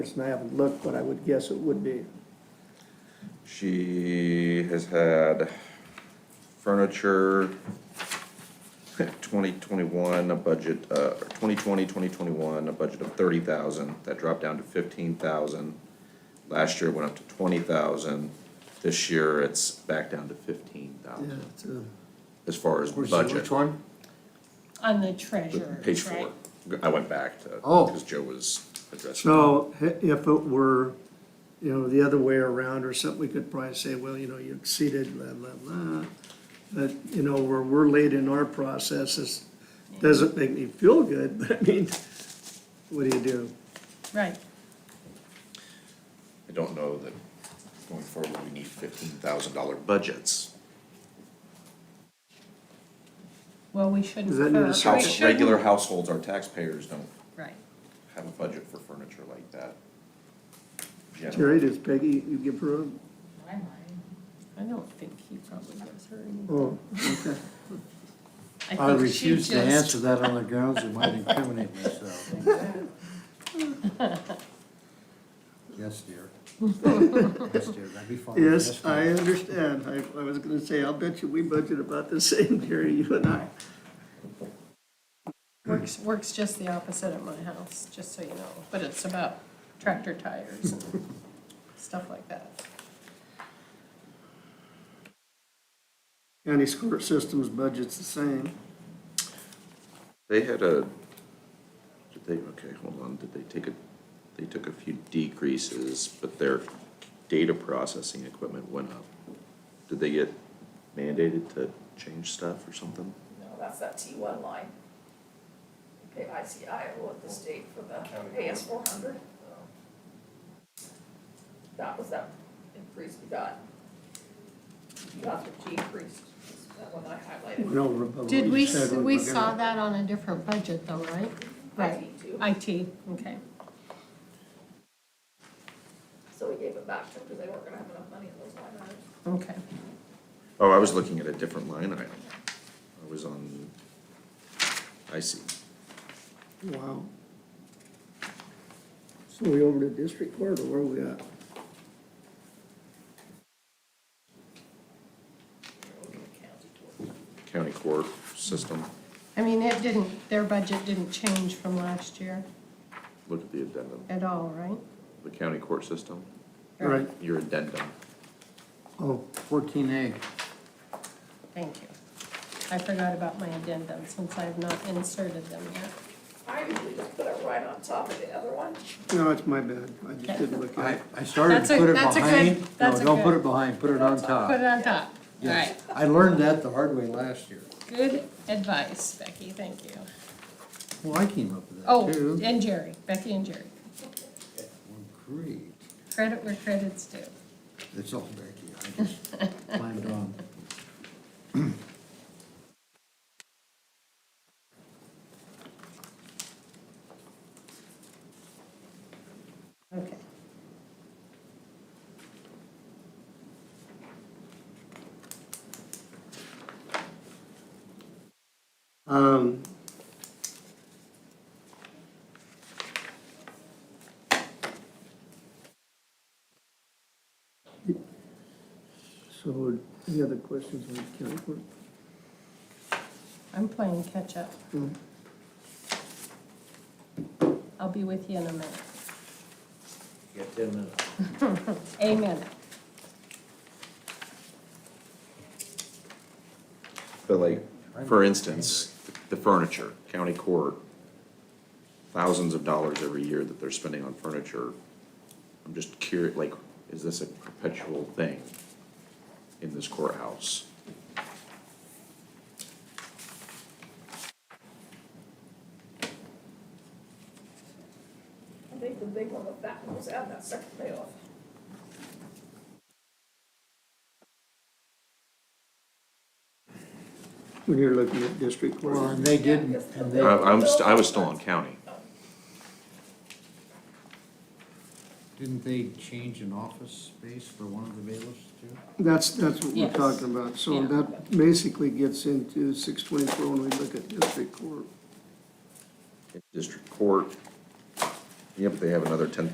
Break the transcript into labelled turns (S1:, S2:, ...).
S1: And I haven't looked, but I would guess it would be.
S2: She has had furniture, twenty twenty-one, a budget, uh, or 2020, 2021, a budget of thirty thousand, that dropped down to fifteen thousand. Last year it went up to twenty thousand, this year it's back down to fifteen
S3: Yeah,
S2: thousand,
S3: it's uh, a-
S2: as far as
S3: Which,
S2: budget.
S3: which one?
S4: On the
S2: The
S4: treasurer,
S2: Page
S4: right?
S2: four, I went back to,
S3: Oh.
S2: because Joe was addressing.
S3: So i- if it were, you know, the other way around or something, we could probably say, well, you know, you exceeded blah, blah, blah. But, you know, where we're late in our process, this doesn't make me feel good, but I mean, what do you do?
S4: Right,
S2: I don't know that going forward, we need fifteen thousand dollar budgets.
S4: well, we shouldn't.
S3: Does that need a
S4: or we
S3: second?
S2: House,
S4: shouldn't-
S2: regular households, our taxpayers don't
S4: Right,
S2: have a budget for furniture like that. Generally.
S3: Terry, does Peggy, you give her a?
S4: I might, I don't think he probably gives her any.
S3: Oh, okay.
S4: think
S5: I
S4: she
S5: refuse to
S4: just-
S5: answer that on the grounds it might incriminate myself. Yes, dear. Yes, dear, that'd be fine.
S3: Yes, I
S5: ma'am.
S3: understand. I, I was gonna say, I'll bet you we budget about the same, Terry, you and I.
S4: Works, works just the opposite at my house, just so you know, but it's about tractor tires and stuff like that.
S3: County school systems budget's the same.
S2: They had a, did they, okay, hold on, did they take a, they took a few decreases, but their data processing equipment went up. Did they get mandated to change stuff or something?
S6: No, that's that T one line. Pay ICIO at the state for the AS four hundred. That was that increase we got. We Got the decrease, that one I highlighted.
S3: No, but
S4: Did
S3: you
S4: we,
S3: said
S4: s-
S3: we
S4: we
S3: were gonna-
S4: saw that on a different budget though, right? Right.
S6: IT too.
S4: IT, okay.
S6: So we gave it back to them because they weren't gonna have enough money in those line items.
S4: Okay,
S2: Oh, I was looking at a different line item. I was on, I see.
S3: Wow. So we over to district court or where are we at?
S2: County court system,
S4: I mean, it didn't, their budget didn't change from last year
S2: look at the addendum,
S4: at all, right?
S2: the county court system,
S3: Right,
S2: your addendum.
S3: oh,
S5: Fourteen A,
S4: Thank you. I forgot about my addendum since I've not inserted them yet.
S6: I usually just put it right on top of the other one.
S3: no, it's my bad. I just didn't look
S5: I,
S3: at it.
S5: I started
S4: That's
S5: to
S4: a-
S5: put it
S4: that's a good-
S5: behind, no,
S4: that's a
S5: don't put
S4: good-
S5: it behind, put it on
S4: Put it
S5: top.
S4: on top. All right.
S5: Yes, I learned that the hard way last year.
S4: Good advice, Becky, thank you.
S5: Well, I came up with
S4: Oh,
S5: that too.
S4: and Jerry, Becky and Jerry.
S5: Great,
S4: Credit where credit's due.
S5: it's all Becky, I just climbed on.
S4: Okay.
S3: Um. So any other questions on county court?
S4: I'm playing catch-up.
S3: Hmm.
S5: Mm.
S4: I'll be with you in a minute.
S5: You got ten minutes.
S4: A minute.
S2: But like, for instance, the furniture, county court, thousands of dollars every year that they're spending on furniture. I'm just curious, like, is this a perpetual thing in this courthouse?
S6: I think the big one with that one was out that second layoff.
S3: When you're looking at district court?
S5: Well, and they didn't, and
S2: I,
S5: they,
S2: I'm, st- I was still on county.
S5: didn't they change an office space for one of the bailiffs too?
S3: That's, that's what we're
S4: Yes.
S3: talking about, so
S4: Yeah.
S3: that basically gets into six twenty-four when we look at district court.
S2: District court, yeah, but they have another ten